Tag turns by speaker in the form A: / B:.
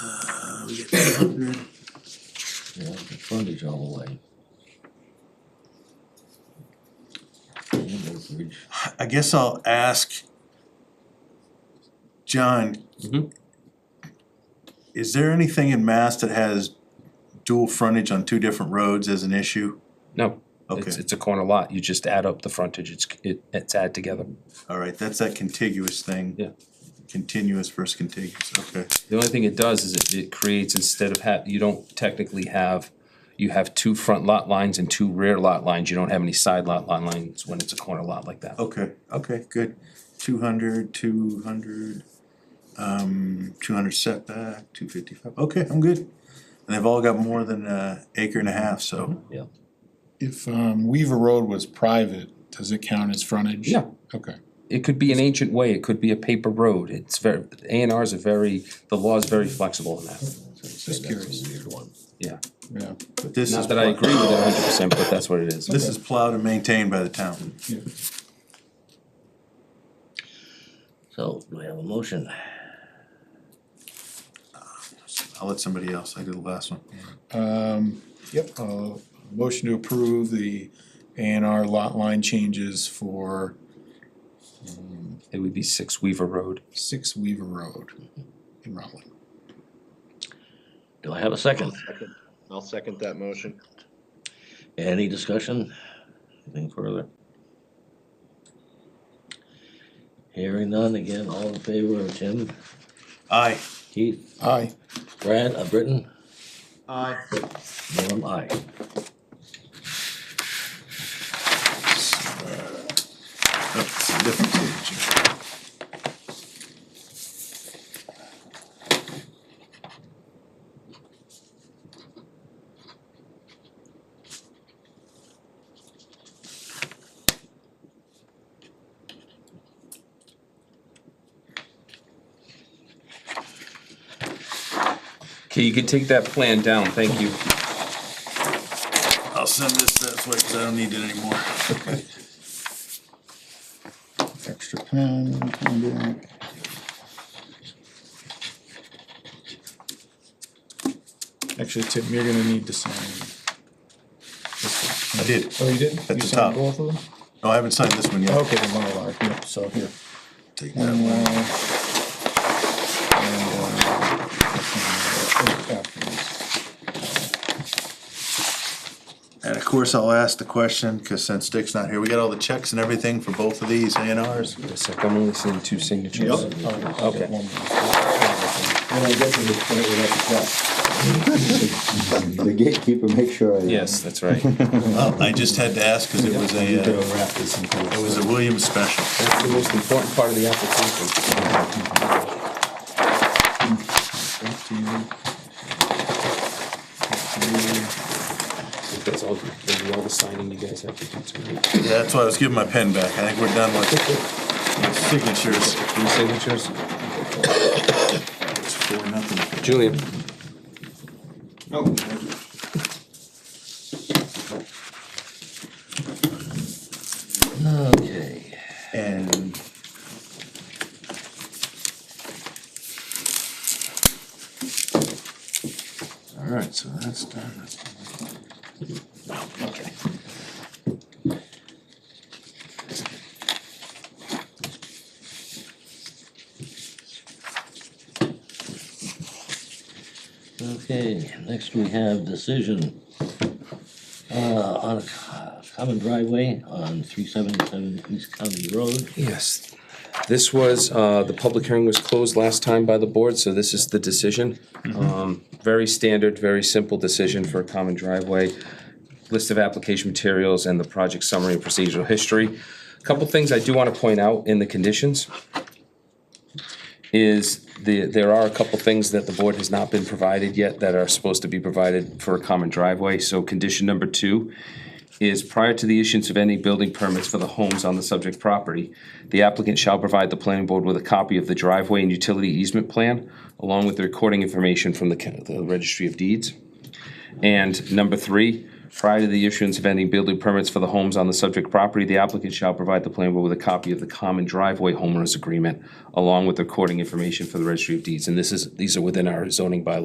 A: Uh,
B: we get three hundred,
C: Yeah, the frontage all the way. And acreage.
A: I guess I'll ask John.
D: Mm-hmm.
B: Mhm.
A: Is there anything in Mass that has dual frontage on two different roads as an issue?
D: No,
A: Okay,
D: it's, it's a corner lot, you just add up the frontage, it's, it, it's add together.
A: alright, that's that contiguous thing.
D: Yeah.
A: Continuous versus contiguous, okay.
D: The only thing it does is it, it creates, instead of have, you don't technically have, you have two front lot lines and two rear lot lines, you don't have any side lot line lines when it's a corner lot like that.
A: Okay, okay, good. Two hundred, two hundred, um, two hundred setback, two fifty-five, okay, I'm good. And they've all got more than a acre and a half, so,
D: Yeah.
E: If um, Weaver Road was private, does it count as frontage?
D: Yeah.
E: Okay.
D: It could be an ancient way, it could be a paper road, it's very, A and Rs are very, the law is very flexible in that,
C: Just
E: curious.
C: Weird one.
D: yeah.
E: Yeah.
A: but this is.
D: Mm-hmm. Not that I
A: pla-
D: agree with it hundred percent, but that's what it is.
A: This is plowed and maintained by the town.
C: So, do I have a motion?
A: I'll let somebody else, I did the last one.
E: Um, yep, uh, motion to approve the A and R lot line changes for
D: It would be Six Weaver Road.
E: six Weaver Road in Rutland.
C: Do I have a second?
F: Second. I'll second that motion.
C: Any discussion? Anything further? Hearing none, again, all in favor of Tim,
A: Aye.
C: Keith,
E: Aye.
C: Brad, uh, Britton,
B: aye.
C: Norm, aye.
A: That's a different page.
D: Okay, you can take that plan down, thank you.
A: I'll send this this way, cause I don't need it anymore.
E: Extra pen, come back. Actually, Tim, you're gonna need to sign. this one.
A: I did.
E: Oh, you did?
A: the
E: You signed
A: top.
E: Both of them?
A: No, I haven't signed this one yet.
E: Okay, the Mylar, yep, so here.
A: Take that
E: And, uh,
A: one.
E: and, uh, afterwards.
A: And of course, I'll ask the question, cause since Dick's not here, we got all the checks and everything for both of these A and Rs.
D: Wait a sec, I'm only seeing two signatures.
G: uh,
E: All right, I'll get
D: Okay.
E: one more.
G: When I get to the point where that's cut. The gatekeeper makes sure. I- uh,
D: Yes, that's right.
A: Oh, I just had to ask, cause it was
G: You
A: a,
G: gotta
A: uh,
G: wrap this in place.
A: it was a Williams special.
D: That's the most important part of the application.
E: Back to you. Back to you.
D: That's all, that'll be all the signing you guys have to do tonight.
A: Yeah, That's why I was giving my pen back, I think we're done with with signatures.
D: Three signatures.
A: It's four, nothing.
D: Julian,
C: Okay,
A: And
C: alright, so that's done. Okay. Okay, next we have decision. Uh, on a co- common driveway on three seventy-seven East County Road.
D: yes. This was, uh, the public hearing was closed last time by the board, so this is the decision. Um, very standard, very simple decision for a common driveway. List of application materials and the project summary and procedural history. Couple things I do wanna point out in the conditions. is the, there are a couple things that the board has not been provided yet that are supposed to be provided for a common driveway. So condition number two is prior to the issuance of any building permits for the homes on the subject property, the applicant shall provide the planning board with a copy of the driveway and utility easement plan, along with the recording information from the, ca- the registry of deeds. And number three, prior to the issuance of any building permits for the homes on the subject property, the applicant shall provide the planning board with a copy of the common driveway homeowners agreement along with recording information for the registry of deeds. And this is, these are within our zoning bylaws.